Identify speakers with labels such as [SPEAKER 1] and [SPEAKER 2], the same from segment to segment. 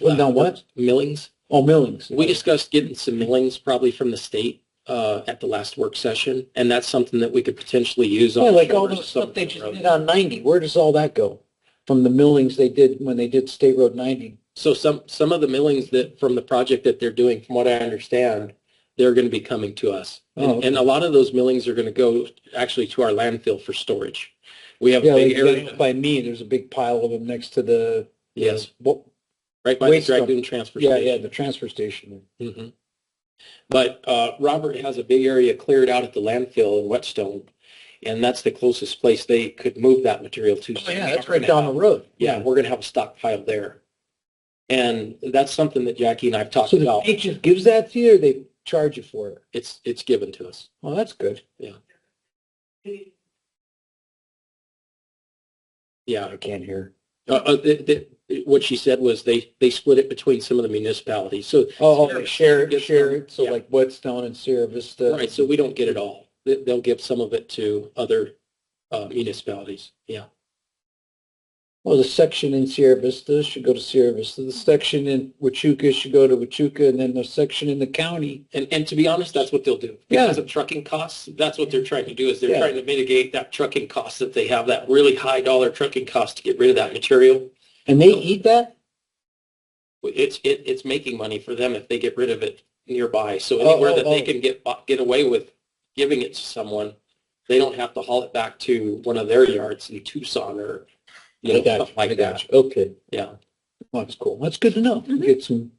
[SPEAKER 1] Well, now what?
[SPEAKER 2] Millings.
[SPEAKER 1] Oh, millings.
[SPEAKER 2] We discussed getting some millings probably from the state uh, at the last work session, and that's something that we could potentially use on.
[SPEAKER 1] Yeah, like
[SPEAKER 2] shores
[SPEAKER 1] all the
[SPEAKER 2] of
[SPEAKER 1] stuff they
[SPEAKER 2] Somerville
[SPEAKER 1] just
[SPEAKER 2] Road.
[SPEAKER 1] did on ninety, where does all that go? From the millings they did when they did State Road ninety.
[SPEAKER 2] So some, some of the millings that, from the project that they're doing, from what I understand, they're going to be coming to us.
[SPEAKER 1] Oh,
[SPEAKER 2] And,
[SPEAKER 1] okay.
[SPEAKER 2] and a lot of those millings are going to go actually to our landfill for storage. We have a
[SPEAKER 1] Yeah,
[SPEAKER 2] big
[SPEAKER 1] like
[SPEAKER 2] area,
[SPEAKER 1] by- by me, there's a big pile of them next to the.
[SPEAKER 2] yes,
[SPEAKER 1] Well,
[SPEAKER 2] right by the
[SPEAKER 1] waste dump.
[SPEAKER 2] Dragoon Transfer
[SPEAKER 1] Yeah,
[SPEAKER 2] Station.
[SPEAKER 1] yeah, the transfer station.
[SPEAKER 2] Mhm. But uh, Robert has a big area cleared out at the landfill in Whetstone, and that's the closest place they could move that material to. So we're
[SPEAKER 1] Oh, That's right
[SPEAKER 2] gonna
[SPEAKER 1] down
[SPEAKER 2] have-
[SPEAKER 1] the road.
[SPEAKER 2] Yeah, we're going to have a stockpile there. And that's something that Jackie and I've talked
[SPEAKER 1] So the
[SPEAKER 2] about.
[SPEAKER 1] state just gives that to you or they charge you for it?
[SPEAKER 2] It's, it's given to us.
[SPEAKER 1] Well, that's good.
[SPEAKER 2] Yeah.
[SPEAKER 1] I can't hear.
[SPEAKER 2] Uh, uh, the, the, what she said was they, they split it between some of the municipalities. So,
[SPEAKER 1] Oh, oh, they share, it,
[SPEAKER 2] Gets
[SPEAKER 1] share
[SPEAKER 2] them.
[SPEAKER 1] it. So
[SPEAKER 2] Yeah.
[SPEAKER 1] like Whetstone and Sierra Vista.
[SPEAKER 2] right, so we don't get it all. They, they'll give some of it to other uh, municipalities. Yeah.
[SPEAKER 1] Well, the section in Sierra Vista should go to Sierra Vista. The section in Wachuca should go to Wachuca, and then the section in the county.
[SPEAKER 2] And, and to be honest, that's what they'll do.
[SPEAKER 1] Yeah.
[SPEAKER 2] Because of trucking costs, that's what they're trying to do is they're
[SPEAKER 1] Yeah.
[SPEAKER 2] trying to mitigate that trucking cost that they have, that really high dollar trucking cost to get rid of that material.
[SPEAKER 1] And they eat that?
[SPEAKER 2] It's, it, it's making money for them if they get rid of it nearby. So
[SPEAKER 1] Oh,
[SPEAKER 2] anywhere
[SPEAKER 1] oh,
[SPEAKER 2] that they
[SPEAKER 1] oh.
[SPEAKER 2] can get, bu- get away with giving it to someone, they don't have to haul it back to one of their yards in Tucson or, you know, something like that. Mm-hmm.
[SPEAKER 1] Okay,
[SPEAKER 2] Yeah.
[SPEAKER 1] Well, that's cool. That's good to know. We Get some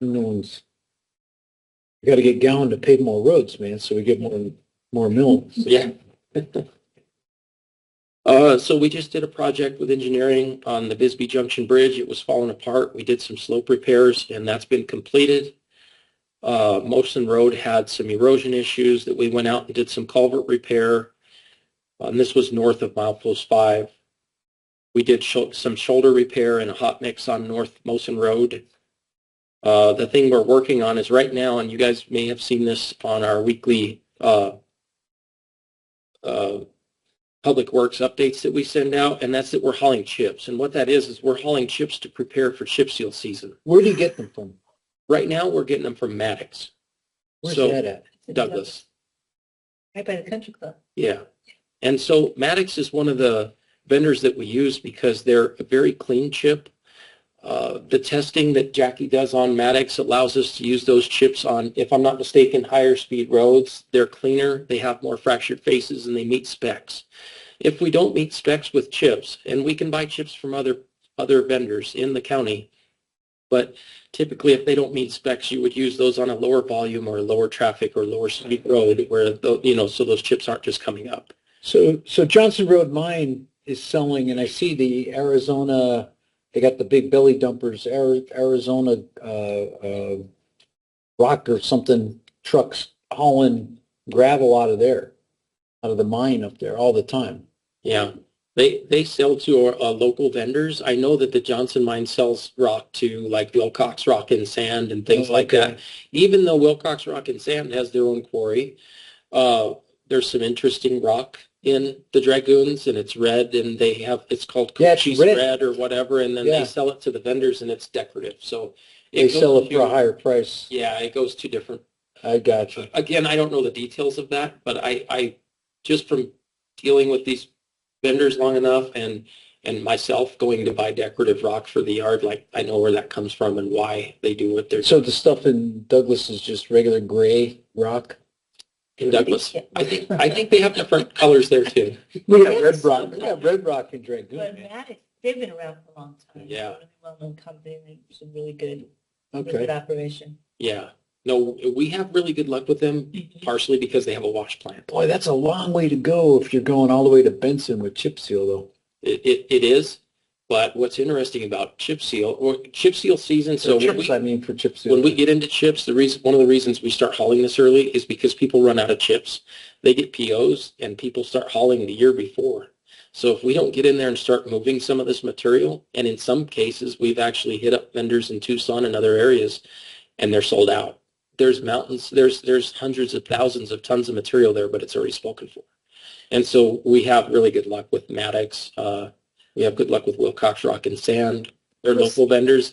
[SPEAKER 1] new ones. We got to get Gowan to pave more roads, man, so we get more more mills.
[SPEAKER 2] Yeah. Uh, so we just did a project with engineering on the Bisbee Junction Bridge. It was falling apart. We did some slope repairs and that's been completed. Uh, Mosin Road had some erosion issues that we went out and did some culvert repair. uh, And this was north of milepost five. We did sho- some shoulder repair and a hot mix on North Mosin Road. Uh, the thing we're working on is right now, and you guys may have seen this on our weekly, uh, uh, public works updates that we send out, and that's that we're hauling chips. And what that is, is we're hauling chips to prepare for chip seal season.
[SPEAKER 1] Where do you get them from?
[SPEAKER 2] Right now, we're getting them from Maddox,
[SPEAKER 1] Where's
[SPEAKER 2] So-
[SPEAKER 1] that at?
[SPEAKER 2] Douglas.
[SPEAKER 3] Right by the country club.
[SPEAKER 2] Yeah. And so Maddox is one of the vendors that we use because they're a very clean chip. Uh, the testing that Jackie does on Maddox allows us to use those chips on, if I'm not mistaken, higher speed roads. They're cleaner, they have more fractured faces, and they meet specs. If we don't meet specs with chips, and we can buy chips from other, other vendors in the county, but typically if they don't meet specs, you would use those on a lower volume or lower traffic or lower speed road where, tho- you know, so those chips aren't just coming up.
[SPEAKER 1] So, so Johnson Road Mine is selling, and I see the Arizona, they got the big belly dumpers, Ari- Arizona, uh, uh, rock or something trucks hauling gravel out of there, out of the mine up there all the time.
[SPEAKER 2] Yeah, they they sell to uh, local vendors. I know that the Johnson Mine sells rock to like Wilcox Rock and Sand and things
[SPEAKER 1] Oh,
[SPEAKER 2] like that. Even though Wilcox Rock and Sand has their own quarry, uh, there's some interesting rock in the Dragoons, and it's red, and they have it's called
[SPEAKER 1] Yeah, it's
[SPEAKER 2] Cochise
[SPEAKER 1] red.
[SPEAKER 2] red or whatever, and then
[SPEAKER 1] Yeah.
[SPEAKER 2] they sell it to the vendors, and it's decorative. So
[SPEAKER 1] They
[SPEAKER 2] goes
[SPEAKER 1] sell it for a
[SPEAKER 2] to-
[SPEAKER 1] higher price.
[SPEAKER 2] Yeah, it goes to different
[SPEAKER 1] I got you.
[SPEAKER 2] again, I don't know the details of that, but I, I, just from dealing with these vendors long enough and, and myself going to buy decorative rock for the yard, like I know where that comes from and why they do what they're doing
[SPEAKER 1] So the stuff in Douglas is just regular gray rock?
[SPEAKER 2] in Douglas. I think, I think they have different colors there too.
[SPEAKER 1] We
[SPEAKER 3] got red rock.
[SPEAKER 1] We got red rock in Dragoon.
[SPEAKER 3] But
[SPEAKER 1] man.
[SPEAKER 3] Maddox, they've been around for a long time.
[SPEAKER 2] Yeah.
[SPEAKER 3] They're a Well-known company, and it's a really good, really
[SPEAKER 1] Okay.
[SPEAKER 3] good operation.
[SPEAKER 2] Yeah. No, we have really good luck with them partially because they have a wash plant.
[SPEAKER 1] Boy, that's a long way to go if you're going all the way to Benson with chip seal though.
[SPEAKER 2] It, it, it is. But what's interesting about chip seal or chip seal season, so
[SPEAKER 1] So
[SPEAKER 2] we-
[SPEAKER 1] chips, I mean, for chip seal.
[SPEAKER 2] When we get into chips, the reason, one of the reasons we start hauling this early is because people run out of chips. They get POs and people start hauling the year before. So if we don't get in there and start moving some of this material, and in some cases, we've actually hit up vendors in Tucson and other areas, and they're sold out. There's mountains, there's, there's hundreds of thousands of tons of material there, but it's already spoken for. And so we have really good luck with Maddox. Uh, we have good luck with Wilcox Rock and Sand. They're
[SPEAKER 3] Yes.
[SPEAKER 2] local vendors.